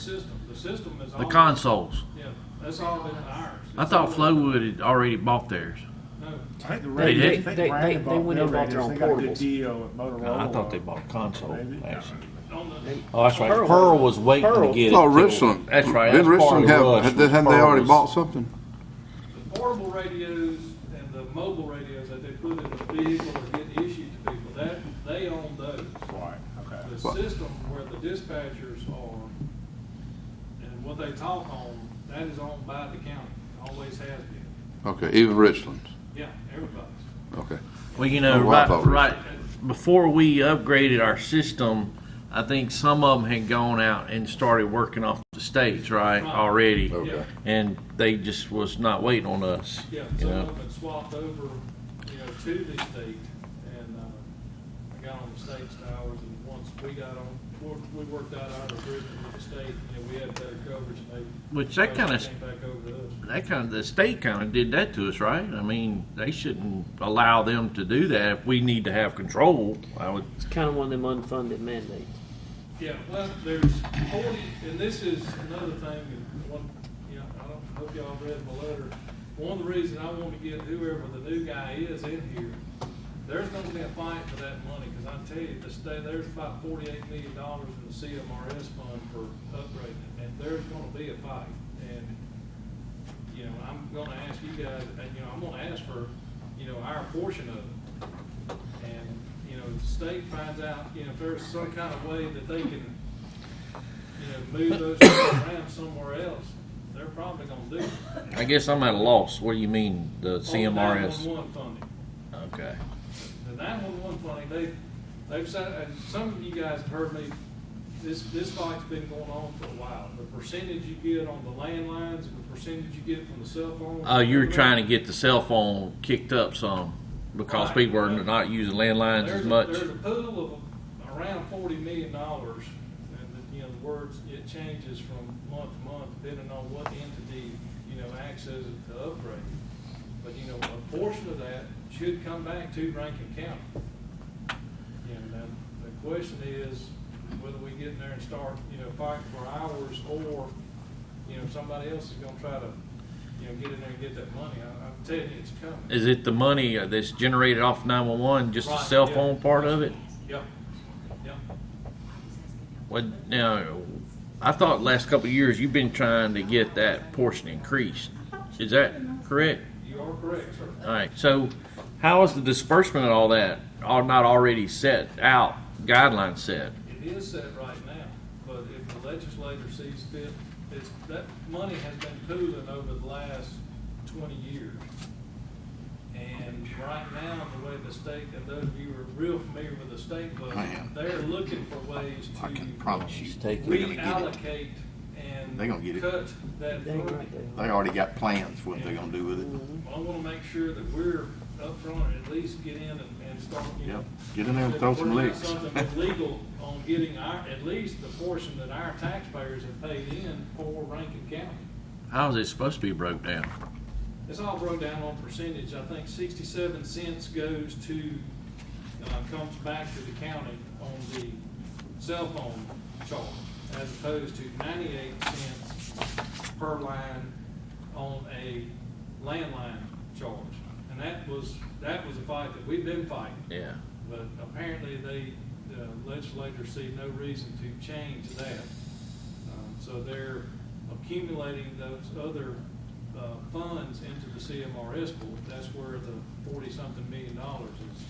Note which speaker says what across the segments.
Speaker 1: system. The system is.
Speaker 2: The
Speaker 1: all-
Speaker 2: consoles.
Speaker 1: Yeah, that's all been ours.
Speaker 2: I thought Flowwood had already bought theirs.
Speaker 1: No,
Speaker 3: I think the
Speaker 2: They
Speaker 3: radio,
Speaker 2: did?
Speaker 3: I think
Speaker 4: They-
Speaker 3: Brandon
Speaker 4: they- they
Speaker 3: bought
Speaker 4: went and
Speaker 3: their
Speaker 4: bought their
Speaker 3: radios.
Speaker 4: own
Speaker 3: They got a good
Speaker 4: portables.
Speaker 3: deal at Motorola.
Speaker 2: I thought they bought a console.
Speaker 3: Maybe.
Speaker 2: actually.
Speaker 1: on the,
Speaker 2: Oh, that's right.
Speaker 4: Pearl.
Speaker 2: Pearl was waiting to
Speaker 4: Pearl.
Speaker 2: get it.
Speaker 5: Thought
Speaker 2: till-
Speaker 5: Richland.
Speaker 2: That's right.
Speaker 5: Oh, Didn't
Speaker 2: That's part
Speaker 5: Richland
Speaker 2: of
Speaker 5: have,
Speaker 2: Rush
Speaker 5: had,
Speaker 2: was
Speaker 5: hadn't they
Speaker 2: Pearl
Speaker 5: already
Speaker 2: was-
Speaker 5: bought something?
Speaker 1: the portable radios and the mobile radios that they put in the vehicle or get issued to people, that, they own those.
Speaker 3: Right, okay.
Speaker 1: The
Speaker 5: Well-
Speaker 1: system where the dispatchers are and what they talk on, that is owned by the county, always has been.
Speaker 5: Okay, even Richland.
Speaker 1: Yeah, everybody's.
Speaker 5: Okay.
Speaker 2: Well, you know,
Speaker 5: Oh, well, I
Speaker 2: right,
Speaker 5: thought
Speaker 2: right before we upgraded our system, I think some of them had gone out and started working off the states, right,
Speaker 1: Right.
Speaker 2: already.
Speaker 5: Okay.
Speaker 1: Yeah,
Speaker 2: And they just was not waiting on us.
Speaker 1: Yeah,
Speaker 2: you
Speaker 1: some
Speaker 2: know.
Speaker 1: of them had swapped over, you know, to the state, and, uh, I got on the state's towers, and once we got on, we, we worked out our agreement with the state, you know, we had better coverage, and they.
Speaker 2: Which that kinda s-
Speaker 1: Came back over to us.
Speaker 2: That kind of, the state kind of did that to us, right? I mean, they shouldn't allow them to do that if we need to have control. I would,
Speaker 4: It's kind of one of them unfunded mandates.
Speaker 1: Yeah, well, there's forty, and this is another thing, and one, you know, I don't, hope y'all read my letter. One of the reasons I want to get whoever the new guy is in here, there's gonna be a fight for that money, cause I tell you, the state, there's about forty-eight million dollars in the CMRS fund for upgrading, and there's gonna be a fight. And, you know, I'm gonna ask you guys, and, you know, I'm gonna ask for, you know, our portion of it. And, you know, if the state finds out, you know, if there's some kind of way that they can, you know, move those things around somewhere else, they're probably gonna do it.
Speaker 2: I guess I'm at a loss. What do you mean,
Speaker 1: Oh,
Speaker 2: the CMRS?
Speaker 1: On 911 funding.
Speaker 2: Okay.
Speaker 1: The nine-one-one funding, they, they've said, and some of you guys have heard me, this, this fight's been going on for a while. The percentage you get on the landlines, and the percentage you get from the cell phone.
Speaker 2: Oh, you were trying to get the cell phone kicked up some because
Speaker 1: Right.
Speaker 2: people are not using landlines
Speaker 1: There's
Speaker 2: as
Speaker 1: a-
Speaker 2: much.
Speaker 1: There's a pool of around forty million dollars, and, the- you know, the words, it changes from month to month, depending on what entity, you know, accesses it to upgrade. But, you know, a portion of that should come back to Rankin County. You know, now, the question is whether we get in there and start, you know, fighting for hours, or, you know, somebody else is gonna try to, you know, get in there and get that money. I, I'm telling you, it's coming.
Speaker 2: Is it the money uh, that's generated off 911, just the
Speaker 1: Right,
Speaker 2: cell
Speaker 1: yeah.
Speaker 2: phone part of it?
Speaker 1: Yep, yep.
Speaker 2: Well, now, I thought last couple of years you've been trying to get that portion increased. Is that correct?
Speaker 1: You are correct, sir.
Speaker 2: All right, so how is the disbursement and all that are not already set out, guidelines set?
Speaker 1: It is set right now, but if the legislature sees fit, it's, that money has been pooling over the last twenty years. And right now, the way the state, and those of you who are real familiar with the state budget,
Speaker 6: Man.
Speaker 1: they're looking for ways to
Speaker 6: I can promise you, they're gonna get it.
Speaker 1: reallocate and
Speaker 6: They're gonna get it.
Speaker 1: cut that
Speaker 4: They ain't right
Speaker 1: funding.
Speaker 4: there.
Speaker 6: They already got plans for what they're gonna do with it.
Speaker 1: I wanna make sure that we're upfront and at least get in and, and start, you know,
Speaker 6: Yep, get in there and throw some
Speaker 1: We're doing
Speaker 6: licks.
Speaker 1: Something that's legal on getting our, at least the portion that our taxpayers have paid in for Rankin County.
Speaker 2: How is it supposed to be broke down?
Speaker 1: It's all broke down on percentage. I think sixty-seven cents goes to, uh, comes back to the county on the cell phone charge as opposed to ninety-eight cents per line on a landline charge. And that was, that was a fight that we've been fighting.
Speaker 2: Yeah.
Speaker 1: But apparently they, the legislators see no reason to change that. Um, So they're accumulating those other uh, funds into the CMRS pool. That's where the forty-something million dollars is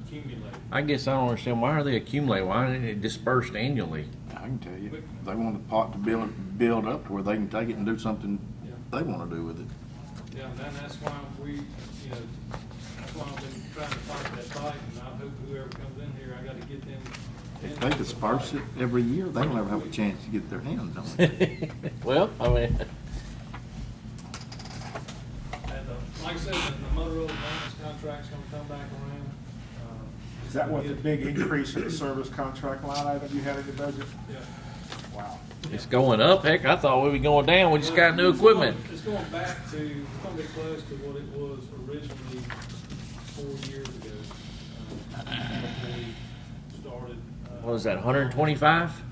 Speaker 1: accumulated.
Speaker 2: I guess I don't understand, why are they accumulating? Why isn't it dispersed annually?
Speaker 6: I can tell you, they want the pot to build, build up to where they can take it and do something
Speaker 1: Yeah.
Speaker 6: they wanna do with it.
Speaker 1: Yeah, and then that's why we, you know, that's why I've been trying to fight that fight, and I hope whoever comes in here, I gotta get them.
Speaker 6: If they disperse it every year, they don't ever have a chance to get their hands on it.
Speaker 2: Well, I mean.
Speaker 1: And, uh, like I said, the Motorola maintenance contract's gonna come back around. Uh,
Speaker 3: Is that what the
Speaker 1: Yeah.
Speaker 3: big increase in the service contract line item you had in your budget?
Speaker 1: Yeah.
Speaker 3: Wow.
Speaker 2: It's going up. Heck, I thought we were going down. We just got new
Speaker 1: It's going-
Speaker 2: equipment.
Speaker 1: It's going back to, it's gonna be close to what it was originally four years ago. uh, when we Started. uh,
Speaker 2: What is that, 125?